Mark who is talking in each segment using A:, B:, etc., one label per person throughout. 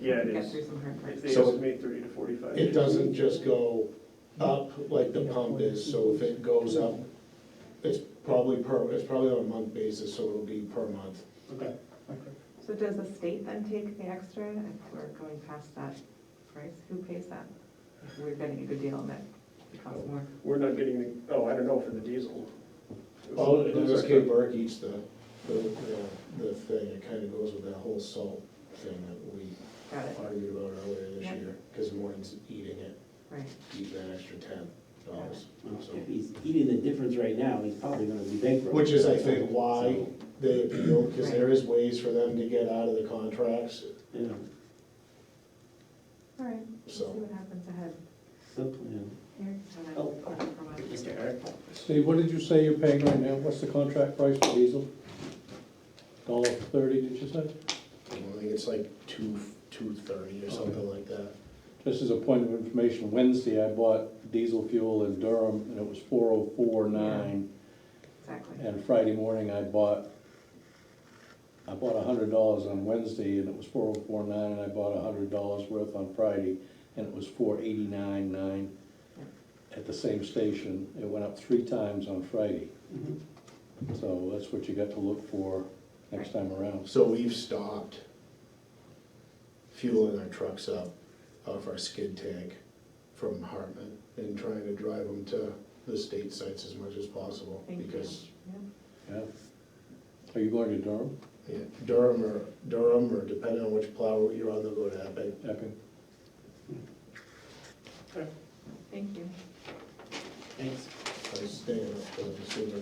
A: Yeah, it
B: Got
A: is.
B: through some hard
A: If
B: parts.
A: they
C: So-
A: estimate thirty to forty-five.
C: It doesn't just go up like the pump is, so if it goes up, it's probably per, it's probably on a month basis, so it'll be per month.
A: Okay.
B: So does the state then take the extra if we're going past that price? Who pays that? If we're getting a good deal and that it costs more?
A: We're not getting the, oh, I don't know for the diesel.
C: Well, MSK Burke eats the, the, the thing, it kinda goes with that whole salt thing that we
B: Got it,
C: argued about earlier this
B: Yeah.
C: year, cause Morton's eating it,
B: right.
C: eating that extra ten dollars.
D: If he's eating the difference right now, he's probably gonna be bankrupt.
C: Which is, I think, why they appeal, cause there is ways for them to get out of the contracts,
D: Yeah,
B: All right, we'll see
C: So-
B: what happens ahead.
D: the plan.
B: Here, and then
D: Oh.
B: from us.
D: Mr. Eric?
E: Steve, what did you say you're paying right now? What's the contract price for diesel? Dollar thirty, did you say?
C: I think it's like two, two thirty or something like that.
E: Just as a point of information, Wednesday I bought diesel fuel in Durham and it was four oh four nine.
B: Exactly.
E: And Friday morning I bought, I bought hundred dollars on Wednesday and it was four oh four nine and I bought hundred dollars worth on Friday and it was four eighty-nine nine at the same station. It went up three times on Friday.
D: Mhm.
E: So that's what you got to look for next time around.
C: So we've stopped fueling our trucks up off our skid tank from Hartman and trying to drive them to the state sites as much as possible.
B: Thank you.
C: Because
B: Yeah.
E: Yeah. Are you going to Durham?
C: yeah, Durham or, Durham or depending on which plow you're on, they'll go to Epic.
E: Epping?
B: Thank you.
D: Thanks.
C: I was staying up for the super.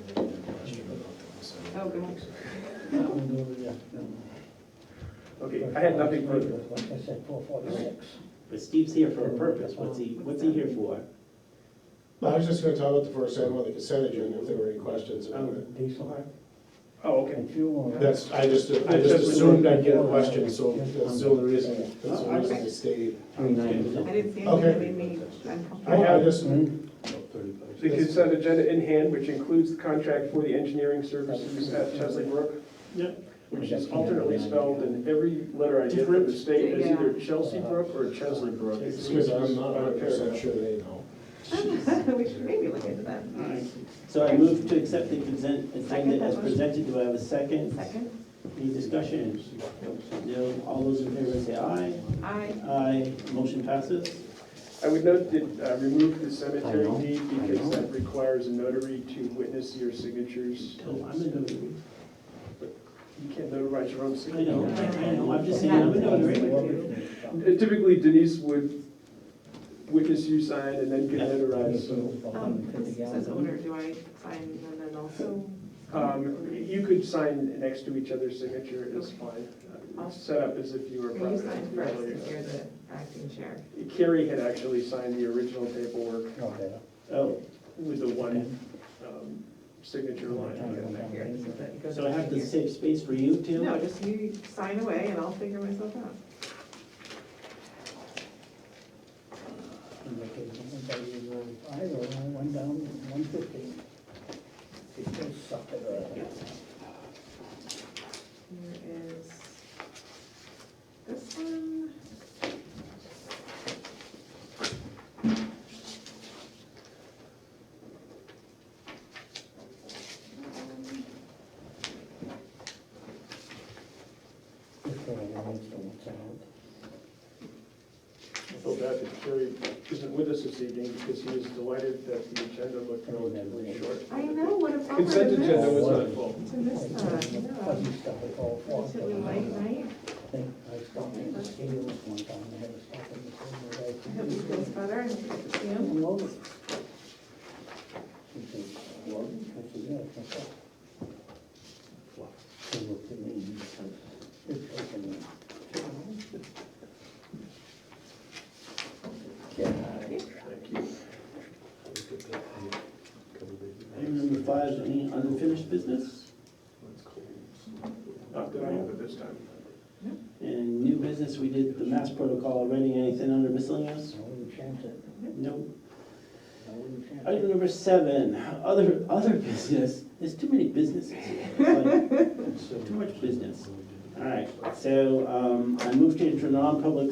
B: Oh, good one.
A: Okay, I had nothing further.
F: Like I said, four forty-six.
D: But Steve's here for a purpose, what's he, what's he here for?
C: I was just gonna talk about the first item on the consent agenda, if there were any questions about it.
F: Diesel
A: Oh, okay.
F: and fuel.
C: That's, I just, I
A: I
C: just
A: just-
C: assumed I'd get a question, so that's the only reason, that's the only reason I stayed.
B: I didn't see anything
C: Okay.
B: that made me
A: I
B: uncomfortable.
A: have-
C: just.
A: The consent agenda in hand, which includes the contract for the engineering services at Chesley Brook. Which is alternately spelled in every letter I get from the state as either Chelsea Brook or Chesley Brook.
C: It's because I'm not hundred percent sure they know.
B: We should maybe look into that.
D: All right. So I move to accept the consent agenda as presented, do I have a second?
B: Second,
D: Any discussion? No, all those in favor say aye.
B: I,
D: Aye, motion passes.
A: I would note that uh, remove the cemetery deed because that requires a notary to witness your signatures.
D: Oh, I'm a notary.
A: You can't notarize your own
D: I know,
A: signature.
D: I I know, I'm just saying, I'm a notary.
A: Typically Denise would witness you sign and then get notarized, so.
B: um, this says owner, do I sign and then also?
A: Um, You could sign next to each other's signature, it's fine. Uh, Set up as if you were.
B: Or you
A: private
B: sign
A: entity
B: first,
A: earlier.
B: if you're the acting chair.
A: Carrie had actually signed the original paperwork
D: Oh,
A: with the one um, signature line.
B: Here, this is it. It goes
D: so I have
B: in
D: to
B: here.
D: save space for you too?
B: No, just you sign away and I'll figure myself out.
F: Either one down, one fifteen. It just sucked it up.
B: Here is this one.
F: Just for the lines to watch
D: Uh,
F: out.
A: I feel bad that Carrie isn't with us this evening because he was delighted that the agenda looked relatively short.
B: I know, what a bummer to
A: Consent agenda
B: miss.
A: was not full.
B: To miss that, yeah.
F: Fuzzy stuff, it all falls.
B: Relatively late night.
F: I think I stopped in the stadium one time, I had to stop in the stadium.
B: I hope he feels better and you get to see him.
F: Logan. He said, Logan, I said, yeah, it's my son." He looked at me and he said, "It's open."
D: Item number five, any unfinished business
A: Not that I have at this time.
D: and new business? We did the mass protocol already. Anything under miscellaneous?
F: I wouldn't chance it,
D: No.
F: I wouldn't chance it.
D: Item number seven, other, other business. There's too many businesses. It's like, Too much business. All right, so um, I moved into non-public